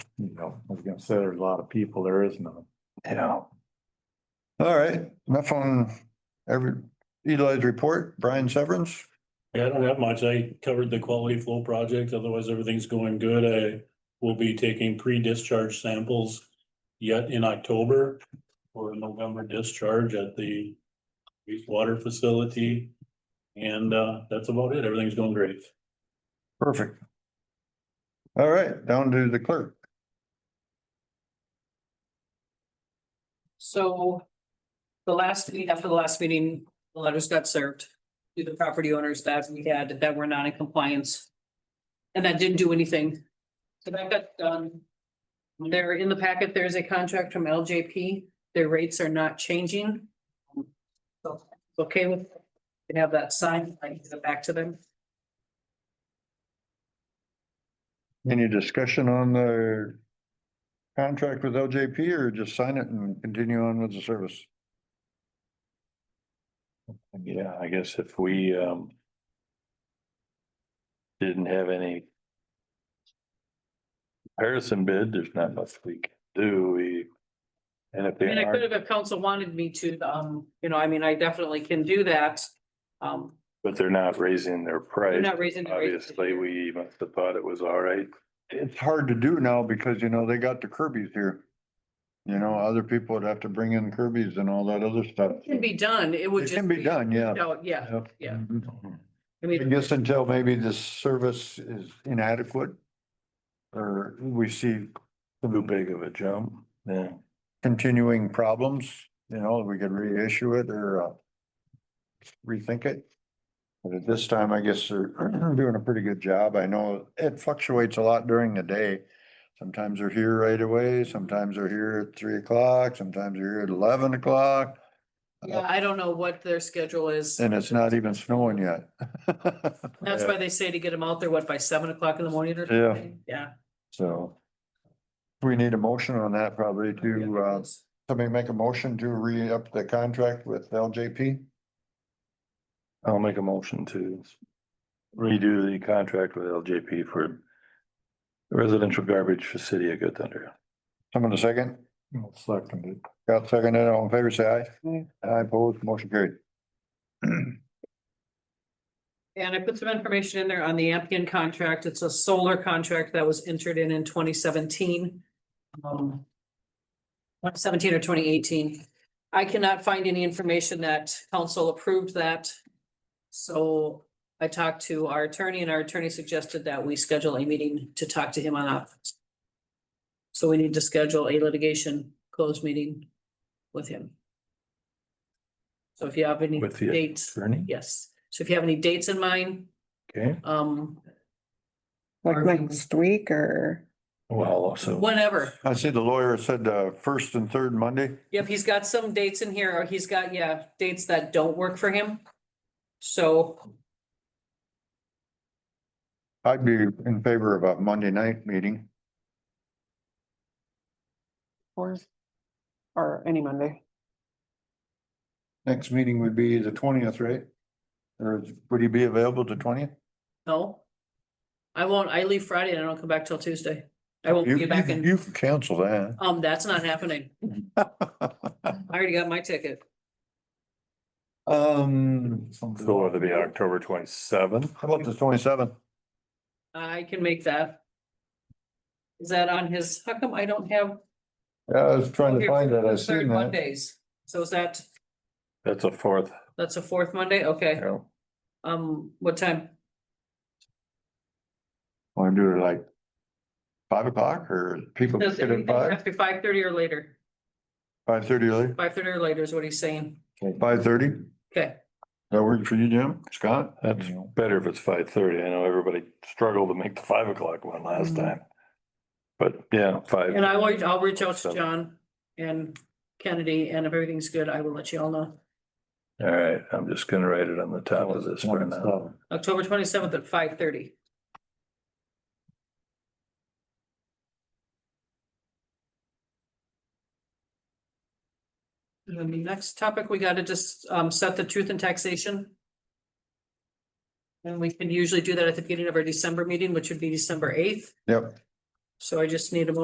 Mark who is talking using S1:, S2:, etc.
S1: considers a lot of people, there is none.
S2: Yeah. All right, enough on every, Eli's report, Brian Severance.
S3: Yeah, I don't have much. I covered the quality flow project. Otherwise, everything's going good. I will be taking pre-discharge samples yet in October for a November discharge at the wastewater facility. And uh, that's about it. Everything's going great.
S2: Perfect. All right, down to the clerk.
S4: So the last, meeting- after the last meeting, the letters got served to the property owners that we had that were not in compliance. And that didn't do anything. So that got done. There in the packet, there's a contract from LJP. Their rates are not changing. So, Okay with, they have that signed, I can give it back to them.
S2: Any discussion on the contract with LJP or just sign it and continue on with the service?
S1: Yeah, I guess if we, um. Didn't have any. Comparison bid, there's not much we can do, we. And if
S4: I
S1: they
S4: mean, I could
S1: aren't,
S4: have, if council wanted me to, um, you know, I mean, I definitely can do that. Um,
S1: but they're not raising their
S4: I'm
S1: price,
S4: not raising. the rates this
S1: obviously,
S4: year.
S1: we must have thought it was all right.
S2: It's hard to do now because, you know, they got the Kirby's here. You know, other people would have to bring in Kirby's and all that other stuff.
S4: Can be done, it would
S2: It
S4: just.
S2: can be done, yeah.
S4: No, yeah, yeah.
S2: I
S4: I mean,
S2: guess until maybe this service is inadequate. Or we see
S1: Too big of a jump, yeah.
S2: continuing problems, you know, we could reissue it or uh. Rethink it. But at this time, I guess they're doing a pretty good job. I know it fluctuates a lot during the day. Sometimes they're here right away, sometimes they're here at three o'clock, sometimes they're here at eleven o'clock,
S4: yeah, I don't know what their schedule is.
S2: and it's not even snowing yet.
S4: That's why they say to get them out there, what, by seven o'clock in the morning or
S2: Yeah.
S4: something? Yeah.
S2: So. We need a motion on that probably to
S4: Yeah.
S2: uh, somebody make a motion to re-up the contract with LJP.
S1: I'll make a motion to redo the contract with LJP for residential garbage for city of Good Thunder.
S2: Someone a second?
S1: Seconded.
S2: Got seconded, all in favor, say aye. Aye, opposed, motion carried.
S4: And I put some information in there on the Ampian contract. It's a solar contract that was entered in in twenty seventeen. Um. Twenty seventeen or twenty eighteen. I cannot find any information that council approved that. So I talked to our attorney and our attorney suggested that we schedule a meeting to talk to him on that. So we need to schedule a litigation closed meeting with him. So if you have any
S1: With the
S4: dates.
S1: Bernie?
S4: Yes, so if you have any dates in mind,
S1: Okay,
S4: um,
S5: Like
S4: Or-
S5: next week or,
S1: well, also,
S4: whenever.
S2: I see the lawyer said uh first and third Monday.
S4: Yep, he's got some dates in here, or he's got, yeah, dates that don't work for him. So,
S2: I'd be in favor of a Monday night meeting.
S5: or, or any Monday.
S2: Next meeting would be the twentieth, right? Or would you be available the twentieth?
S4: no. I won't, I leave Friday and I don't come back till Tuesday. I won't
S2: You
S4: be
S2: you
S4: back
S2: can
S4: in,
S2: you can cancel that.
S4: um, that's not happening. I already got my ticket.
S2: Um,
S1: so it'll be October twenty seventh.
S2: how about the twenty-seventh?
S4: I can make that. Is that on his, how come I don't have?
S2: Yeah, I was trying to
S4: Here,
S2: find that. I
S4: third
S2: seen that.
S4: Mondays, so is that,
S1: That's a fourth.
S4: that's a fourth Monday, okay,
S2: Yeah.
S4: um, what time?
S2: Want to do it like five o'clock or people
S4: Does
S2: get
S4: it
S2: it
S4: have
S2: five,
S4: to be five thirty or later?
S2: five thirty early,
S4: Five thirty or later is what he's saying.
S2: five thirty?
S4: Okay,
S2: That work for you, Jim? Scott?
S1: That's better if it's five thirty. I know everybody struggled to make the five o'clock one last
S5: Mhm.
S1: time. But yeah, five.
S4: and I will, I'll reach out to
S1: Awesome.
S4: John and Kennedy, and if everything's good, I will let you all know.
S1: All right, I'm just gonna write it on the top of this for now.
S2: 27.
S4: October twenty seventh at five thirty. And then the next topic, we gotta just um set the truth and taxation. And we can usually do that at the beginning of our December meeting, which would be December eighth,
S2: Yep.
S4: so I just need a motion